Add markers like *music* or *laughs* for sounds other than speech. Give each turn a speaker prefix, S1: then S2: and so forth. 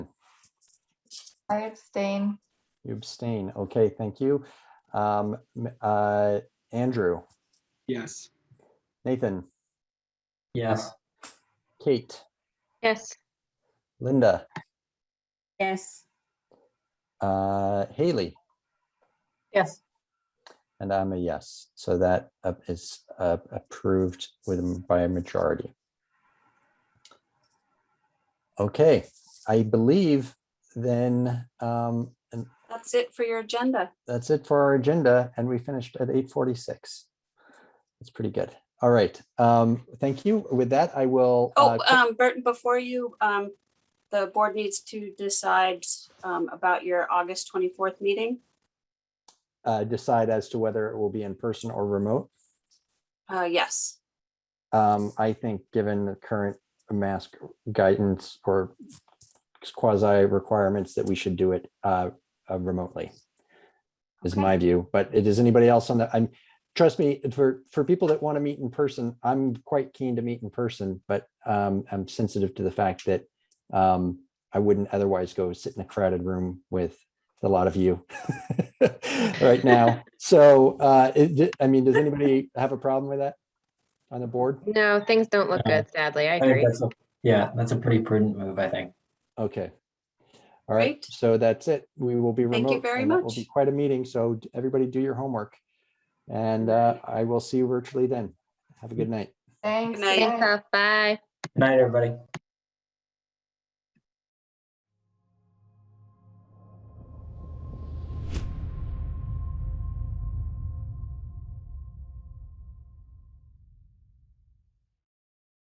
S1: I abstain.
S2: You abstain. Okay, thank you. Um, m- uh, Andrew,
S3: Yes.
S2: Nathan,
S4: Yes.
S2: Kate,
S5: Yes.
S2: Linda,
S6: Yes.
S2: uh, Haley,
S5: Yes.
S2: and I'm a yes. So that uh, is uh, approved with m- by a majority. Okay, I believe then um, and
S6: That's it for your agenda.
S2: that's it for our agenda, and we finished at eight forty-six. That's pretty good. All right. Um, thank you. With that, I will. uh,
S6: Oh,
S2: cl-
S6: um, Burton, before you, um, the board needs to decide, um, about your August twenty-fourth meeting.
S2: uh, decide as to whether it will be in person or remote.
S6: Uh, yes,
S2: Um, I think, given the current mask guidance or quasi requirements, that we should do it uh, uh, remotely. Is
S6: Okay.
S2: my view, but it is anybody else on that? I'm, trust me, for, for people that want to meet in person, I'm quite keen to meet in person, but um, I'm sensitive to the fact that um, I wouldn't otherwise go sit in a crowded room with a lot of you *laughs* right now. So, uh, it, I mean, does anybody have a problem with that on the board?
S5: No, things don't look
S4: Yeah.
S5: good, sadly. I
S4: I think
S5: agree.
S4: that's a, yeah, that's a pretty prudent move, I think.
S2: Okay. All right,
S6: Great.
S2: so that's it. We will be remote.
S6: Thank you very
S2: and that Will be
S6: much.
S2: quite a meeting, so d- everybody do your homework. And
S6: All
S2: uh,
S6: right.
S2: I
S6: Mm-hmm.
S2: will see you virtually then. Have a good night.
S1: Thanks.
S6: night.
S5: Thanks,
S1: guys.
S5: Huff. Bye.
S4: Good night, everybody.